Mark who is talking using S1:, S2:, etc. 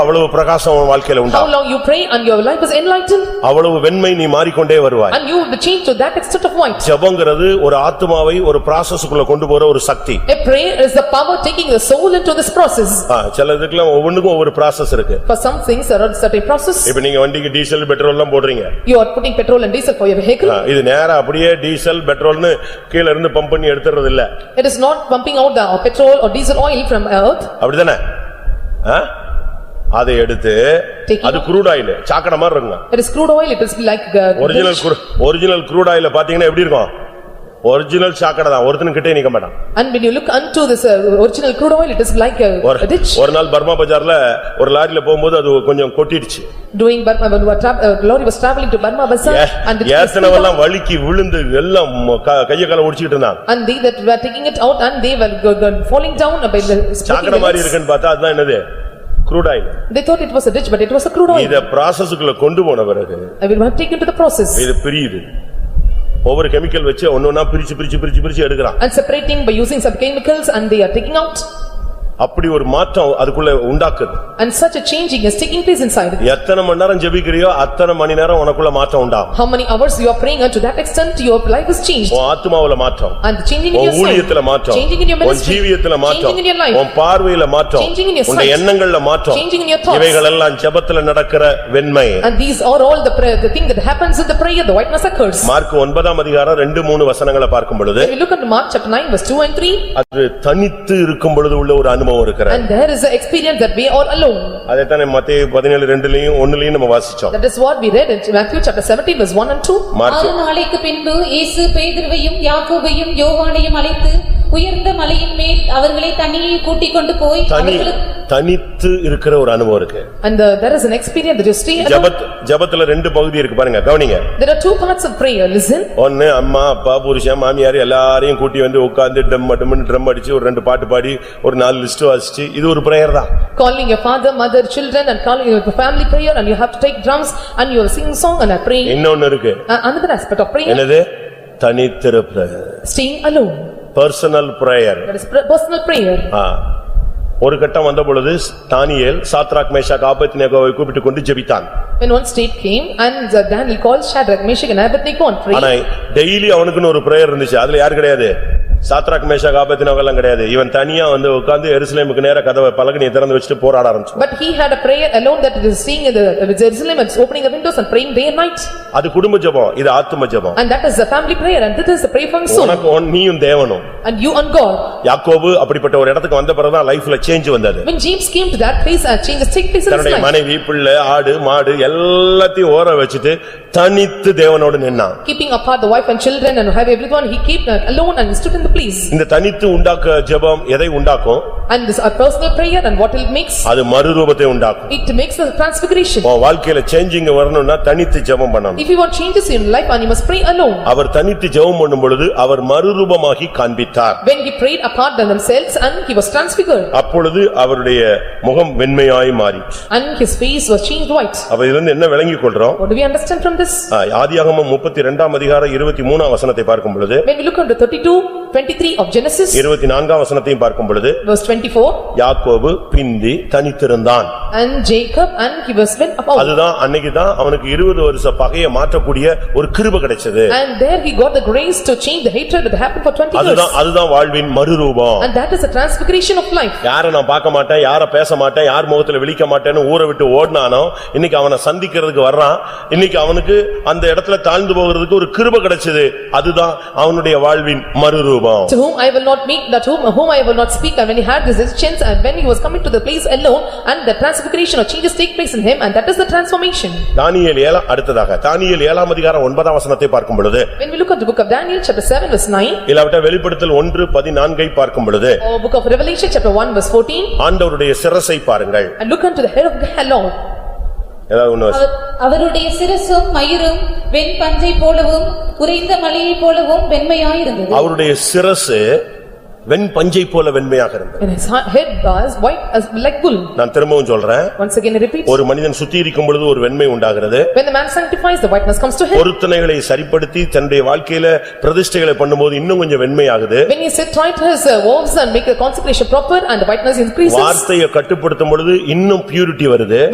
S1: அவ்வளவு பிரகாசம் உன் வாழ்க்கையில உண்டா
S2: How long you pray and your life is enlightened
S1: அவ்வளவு வெண்மை நீ மாறிக்கொண்டே வருவாய்
S2: and you will be changed to that extent of white.
S1: ஜெபங்கிறது ஒரு ஆத்துமாவை ஒரு ப்ராசஸ்க்குள்ள கொண்டு போற ஒரு சக்தி
S2: A prayer is the power taking the soul into this process.
S1: ஆ, சில இதுக்கெல்லாம் ஒவ்வொன்றுக்கும் ஒவ்வொரு ப்ராசஸ் இருக்கு
S2: For some things there are certain process.
S1: இப்ப நீங்க வண்டிக்கு டீசல் பெட்ரோல் எல்லாம் போடுறீங்க
S2: You are putting petrol and diesel for your
S1: ah,
S2: vehicle.
S1: இது நேரா அப்படியே டீசல் பெட்ரோல்னு கீழ இருந்து பம்ப் பண்ணி எடுத்துறது இல்ல
S2: It is not pumping out the petrol or diesel oil from earth.
S1: அப்படிதானே ஆ? அதை எடுத்து
S2: Taking-
S1: அது குரூட் ஆயில் சாக்கடை மாதிரி இருக்குங்க
S2: It is crude oil, it is like uh,
S1: original original crude ஆயில பாத்தீங்கன்னா எப்படி இருக்கும் ஒரிஜினல் சாக்கடை தான் ஒருத்தனும் கிட்டே நிக்க மாட்டான்
S2: And when you look unto this uh, original crude oil, it is like uh, a
S1: ஒரு-
S2: a ditch.
S1: ஒரு நாள் பர்மா பஜார்ல ஒரு லாரியில போகும்போது அது கொஞ்சம் கொட்டிடுச்சு
S2: Doing Burma, when a tra- uh, lorry was traveling to Burma Bazaar and it was split
S1: ஏத்தனவெல்லாம்
S2: up.
S1: வழுக்கி விழுந்து எல்லாம் ம- க- கைய கால ஒடிச்சிட்டு இருந்தான்
S2: And they that were taking it out and they were go- go- falling down by the breaking
S1: சாக்கடை
S2: the
S1: மாதிரி
S2: legs.
S1: இருக்குன்னு பார்த்தா அதுதான் என்னது crude oil
S2: They thought it was a ditch, but it was a crude oil.
S1: இத ப்ராசஸ்க்குள்ள கொண்டு போன பிறகு
S2: I will have taken to the process
S1: இது பிரியுது ஒவ்வொரு கெமிக்கல் வச்சு ஒன்னொன்னா பிரிச்சு பிரிச்சு பிரிச்சு பிரிச்சு எடுக்கிறான்
S2: and separating by using some chemicals and they are taking out.
S1: அப்படி ஒரு மாற்றம் அதுக்குள்ள உண்டாக்குது
S2: And such a changing is taking place inside.
S1: எத்தனை மணி நேரம் ஜெபிக்கிறியோ அத்தனை மணி நேரம் உனக்குள்ள மாற்றம் உண்டாகும்
S2: How many hours you are praying and to that extent your life is changed.
S1: உன் ஆத்துமாவுல மாற்றம்
S2: And changing in
S1: உன்
S2: your soul.
S1: ஊழியத்துல மாற்றம்
S2: Changing in your
S1: உன்
S2: ministry.
S1: ஜீவியத்துல மாற்றம்
S2: Changing in your life.
S1: உன் பார்வையில மாற்றம்
S2: Changing in your
S1: உன்
S2: sight.
S1: எண்ணங்கள்ல மாற்றம்
S2: Changing in your thoughts.
S1: இவைகளெல்லாம் ஜெபத்துல நடக்கிற வெண்மை
S2: And these are all the prayer, the thing that happens in the prayer, the whiteness occurs.
S1: Mark ஒன்பதாம் அதிகாரம் ரெண்டு மூணு வசனங்களை பார்க்கும் பொழுது
S2: If you look at Mark chapter 9 verse 2 and 3
S1: அது தனித்து இருக்கும் பொழுது உள்ள ஒரு அனுபவம் இருக்கிற
S2: and there is an experience that we are alone.
S1: அதைத்தான் மத்திய பதினேழு ரெண்டுலயும் ஒண்ணுலயும் நம்ம வாசிச்சோம்
S2: That is what we read in Matthew chapter 17 verse 1 and 2.
S1: Mark
S3: ஆறு நாளைக்கு பின்பு இயேசு பேதுருவையும் யாக்கோபையும் யோவானையும் அழைத்து உயர்ந்த மலையின் மேல் அவர்களை தனியில் கூட்டிக் கொண்டு போய்
S1: தனி
S3: அவர்களுக்கு
S1: தனித்து இருக்கிற ஒரு அனுபவம் இருக்கு
S2: And uh, there is an experience that you stay alone.
S1: ஜெபத் ஜெபத்துல ரெண்டு பகுதி இருக்கு பாருங்க கவனிங்க
S2: There are two parts of prayer, listen.
S1: ஒன்னு அம்மா அப்பா புருஷன் மாமியார் எல்லாரையும் கூட்டி வந்து உட்கார்ந்து டம் டம்னு ட்ரம் அடிச்சு ஒரு ரெண்டு பாட்டு பாடி ஒரு நாலு லிஸ்ட் வாசிச்சு இது ஒரு பிரேயர் தான்
S2: Calling your father, mother, children and calling your family prayer and you have to take drums and you are singing song and are praying.
S1: இன்னொன்னு இருக்கு
S2: Uh, Another aspect of prayer,
S1: என்னது தனித்திருப்பு
S2: staying alone.
S1: Personal prayer
S2: That is pr- personal prayer.
S1: ஒரு கட்டம் வந்த பொழுது தானியேல் சாத்ராக் மேஷாக் ஆபத்தினேகோவை கூப்பிட்டு கொண்டு ஜெபித்தான்
S2: When one state came and uh, Daniel called Shadrach, Meshach and Abednego and prayed.
S1: ஆனா டெய்லி அவனுக்குன்னு ஒரு பிரேயர் இருந்துச்சு அதுல யார் கிடையாது சாத்ராக் மேஷாக் ஆபத்தினேகோ எல்லாம் கிடையாது இவன் தனியா வந்து உட்கார்ந்து எருசலேமுக்கு நேர கதவை பலகனியை திறந்து வச்சுட்டு போராட ஆரம்பிச்சு
S2: But he had a prayer alone that is seeing in the uh, Jerusalem and opening the windows and praying day and night.
S1: அது குடும்ப ஜெபம் இது ஆத்தும ஜெபம்
S2: And that is the family prayer and that is the prayer from soul.
S1: உனக்கு உன்- நீயும் தேவனும்
S2: And you and God.
S1: யாக்கோபு அப்படிப்பட்ட ஒரு இடத்துக்கு வந்த பிறகுதான் லைஃப்ல சேஞ்ச் வந்தது
S2: When James came to that place and changes take place in his
S1: தன்னுடைய
S2: life.
S1: மனைவி பிள்ளை ஆடு மாடு எல்லாத்தையும் ஓர வச்சுட்டு தனித்து தேவனோடு நின்னான்
S2: Keeping apart the wife and children and have everyone, he kept alone and stood in the place.
S1: இந்த தனித்து உண்டாக்க ஜெபம் எதை உண்டாக்கும்
S2: And this a personal prayer and what it makes?
S1: அது மறுரூபத்தை உண்டாக்கும்
S2: It makes a transfiguration.
S1: உன் வாழ்க்கையில சேஞ்சிங் வரணும்னா தனித்து ஜெபம் பண்ணணும்
S2: If you want changes in life and you must pray alone.
S1: அவர் தனித்து ஜெபம் பண்ணும் பொழுது அவர் மறுரூபமாகி காண்பித்தார்
S2: When he prayed apart than themselves and he was transfigured
S1: அப்பொழுது அவருடைய முகம் வெண்மையாய் மாறிற்று
S2: and his face was changed white.
S1: அப்ப இதுல இருந்து என்ன விளங்கிக் கொள்றோம்
S2: What do we understand from this?
S1: ஆ, ஆதியாகமம் முப்பத்தி இரண்டாம் அதிகார இருபத்தி மூணாம் வசனத்தை பார்க்கும் பொழுது
S2: When we look on the 32, 23 of Genesis,
S1: இருபத்தி நான்காம் வசனத்தையும் பார்க்கும் பொழுது
S2: verse 24,
S1: யாக்கோபு பிந்தி தனித்திருந்தான்
S2: and Jacob and he was went about.
S1: அதுதான் அன்னைக்குதான் அவனுக்கு இருபது வருஷ பகையை மாற்றக்கூடிய ஒரு கிருப கிடைச்சது
S2: And there he got the grace to change the hatred that happened for 20 years.
S1: அதுதான் அதுதான் வாழ்வின் மறுரூபம்
S2: And that is the transfiguration of life.
S1: யார நான் பார்க்க மாட்டேன் யார பேச மாட்டேன் யார் முகத்துல விழிக்க மாட்டேன்னு ஊரை விட்டு ஓடுனானோ இன்னைக்கு அவனை சந்திக்கிறதுக்கு வர்றான் இன்னைக்கு அவனுக்கு அந்த இடத்துல தாழ்ந்து போகிறதுக்கு ஒரு கிருப கிடைச்சது அதுதான் அவனுடைய வாழ்வின் மறுரூபம்
S2: To whom I will not meet, that whom whom I will not speak, and when he had this chance, and when he was coming to the place alone, and the transfiguration or changes take place in him, and that is the transformation.
S1: தானியேல் ஏழா அடுத்ததாக தானியேல் ஏழாம் அதிகாரம் ஒன்பதாம் வசனத்தை பார்க்கும் பொழுது
S2: When we look at the book of Daniel, chapter seven, verse nine,
S1: இல்லாவிட்ட வெளிப்படுத்தல் ஒன்று பதினான்கை பார்க்கும் பொழுது
S2: or book of Revelation, chapter one, verse fourteen,
S1: ஆண்டவருடைய சிரசை பாருங்கள்
S2: and look unto the head of the Lord,
S1: ஏதாவது ஒண்ணு
S3: அவர்- அவருடைய சிரசும் மயிரும் வெண்பஞ்சை போலவும் உறைந்த மலையைப் போலவும் வெண்மையாயிருந்தது
S1: அவருடைய சிரசு வெண் பஞ்சை போல வெண்மையாக இருந்தது.
S2: And his ha- head was white as like wool.
S1: நான் திரும்பவும் சொல்றேன்.
S2: Once again, I repeat,
S1: ஒரு மனிதன் சுத்திகரிக்கும் பொழுது ஒரு வெண்மை உண்டாகிறது.
S2: when the man sanctifies, the whiteness comes to him.
S1: பொருத்தனைகளை சரிப்படுத்தி தன்னுடைய வாழ்க்கையில பிரதிஷ்டைகளை பண்ணும்போது இன்னும் கொஞ்சம் வெண்மையாகுது.
S2: When he set right his uh, wolves and make the consecration proper and the whiteness increases.
S1: வார்த்தையை கட்டுப்படுத்தும் பொழுது இன்னும் பியூரிட்டி வருது.